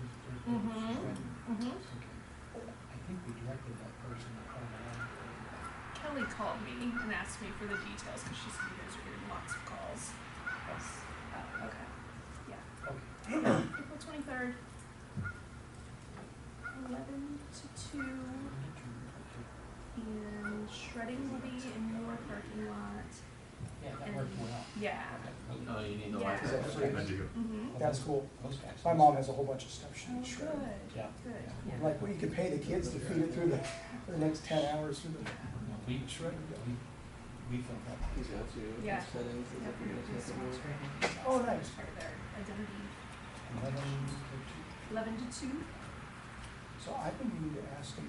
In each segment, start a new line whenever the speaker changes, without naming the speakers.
Mhm,
Right.
mhm.
Okay. I think we directed that person to call the line.
Kelly called me and asked me for the details because she said you guys are getting lots of calls. Yes. Oh, okay. Yeah.
Okay,
April twenty-third. Eleven to two and shredding will be in your parking lot.
yeah, that worked well.
Yeah.
No, you need the
Yeah.
light.
Is that
That's
just
right.
like-
Mm-hmm.
That's cool.
Those guys.
My mom has a whole bunch of stuff
Oh,
she
good.
shredded.
Yeah.
Good.
Like, we could pay the kids to feed it through the, for the next ten hours through the.
No, We shredded, we, we filled up.
He's got to.
Yeah.
Settings. is
Yeah,
up here, it's up here.
Oh, nice.
Right there. Identity.
Eleven to
Eleven to two.
So I've been meaning to ask him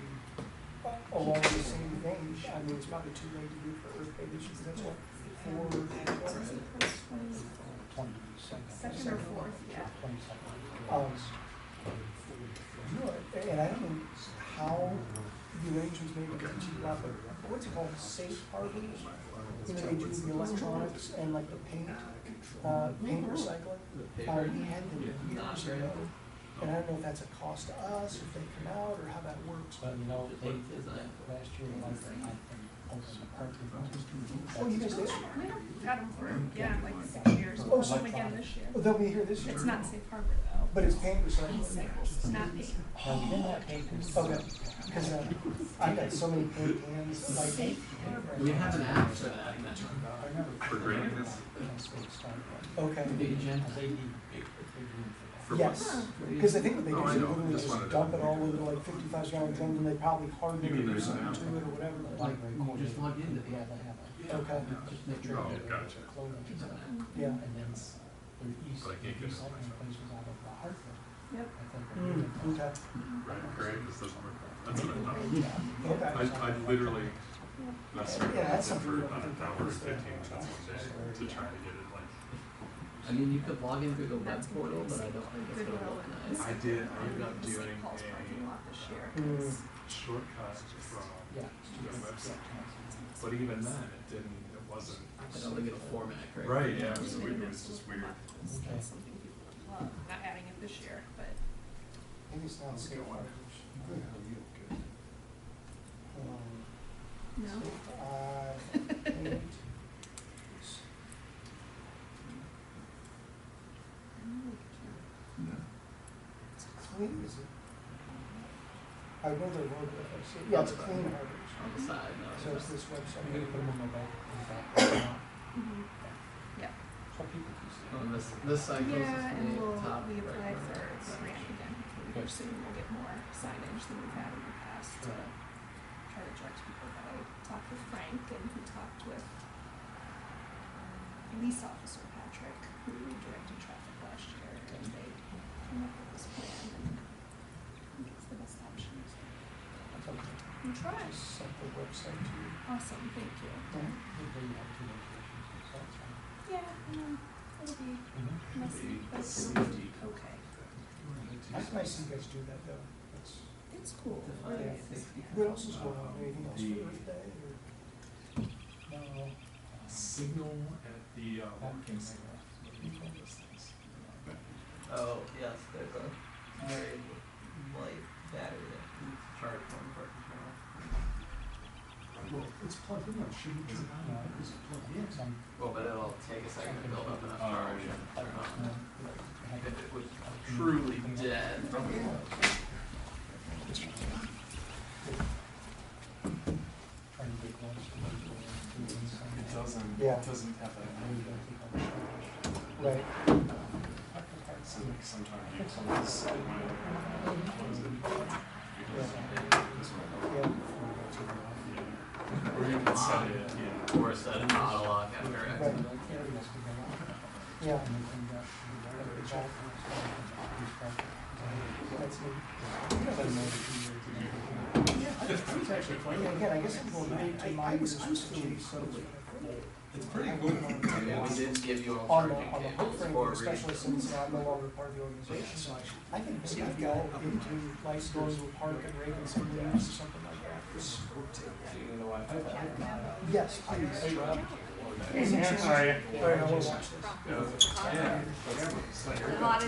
uh, along the same vein, I mean, it's probably too late to do for Earth Day this year, that's what, four,
two, twenty-second.
Second or fourth, yeah.
Twenty-second.
um, you know, and I don't know how the arrangements made with the cheap lot, but what's it called, safe harbor? You know, they do the electronics and like the paint, uh, paint recycling.
The
Uh,
Oh,
paper.
he had them years ago, and I don't know if that's a cost to us, if they come out, or how that works.
But, you know, they did that last year, like, I think, open the parking lot.
Oh, you guys did?
We have had them for, yeah, like six years. We'll have them again this year.
Oh, they'll be here this year?
It's not safe harbor though.
But it's paint recycling.
It's not me.
No, we didn't have papers.
Okay, because uh, I've got so many paint cans, like.
We have an app for that.
For
grants?
Okay,
The agenda.
For
yes, because I think what they do
Oh,
is
I
they
know.
literally
Just
just
wanted to-
dump it all over like fifty-five gallon drums, and they probably harden it
You mean
or
there's an
something
app?
to it or whatever.
Like, you just log into the app.
Okay,
Just make sure.
Oh, gotcha.
It's an app.
yeah,
And then s- their east,
Like, you
their
could-
recycling place was out of Hartford,
Yep.
I think. or
Mm,
Newton.
okay,
Right, correct, This doesn't work. That's what I
Yeah.
okay.
thought. I, I literally, that's right,
Yeah, that's
that's it
something
for about
that we
an
could
hour, and
practice there.
fifteen minutes one day to try to get it like.
I mean, you could log in through the web
That's gonna be
portal,
the
but I
same
don't think it's gonna
Goodwill and
look nice.
this.
I did, I
Um,
ended up
the
doing
St. Paul's parking
a
lot this year.
Mm.
It's-
shortcut from
Yeah.
the website, but even then, it didn't, it wasn't.
I don't think it'll format correctly.
Right, yeah, it
it's
was
really
weird, it
nice
was
to
just
look
weird.
at. It's
Okay.
something people love. Not adding it this year, but
Maybe it's not safe harbor. Um,
no.
Uh, paint. It's clean, is it? I know their logo, I see, yeah, it's clean harbors,
On the side, no, it's
so it's
not.
this
We could put them
website.
on the back, in the back. lot.
Mhm.
So people can see.
On this, this side goes this
Yeah, and
way,
we'll,
top
we
right
applied
corner.
for a grant again. We're
Good.
soon we'll get more signage than we've had in the past to try to direct people. But I talked with Frank and he talked with um, police officer Patrick, who directed traffic last year, and they came up with this plan and I think it's the best option. so We tried.
Just sent the website to you.
Awesome, thank you.
Good thing you have two locations, so that's fine.
Yeah, um, it'll be messy, but it'll be okay.
That's nice you guys do that though, that's, Um,
It's cool.
Define
Really
safety.
is, yeah.
what else is going on, anything else for Earth Day or?
No, uh,
Signal at the, uh,
that can make a difference.
Oh, yes, there's a very light battery that needs to charge one part of
Well, it's plugged in, it shouldn't turn on,
Uh,
No,
it's plugged in.
Some,
Well, but it'll take a second to build up enough charge and turn
no,
on.
I
If
had-
it was truly dead,
try to get one, so we can do it some-
It doesn't,
Yeah.
it doesn't have
Maybe
that,
they'll take on the shoulders.
Right.
so like sometimes you close it when it closes it. This one.
Yeah,
Or you can set it, yeah.
or set an auto lock after
right,
accident.
yeah,
And they can go out to the yard, they shop, these properties.
that's neat. You guys are nice. Yeah, Again, I guess I'm going back to my years with Jimmy Sosa.
It's pretty cool.
Yeah, we did give you all
On the,
charging
on the hook
cables
frame,
for a reason.
especially since I'm no longer part of the organization, so I think this could go into Lice Doors Park and Raven some leaves or something like that.
Do you need a Wi-Fi password?
Yes, please.
Sorry.
All right, I will watch this.
Yeah.
A lot of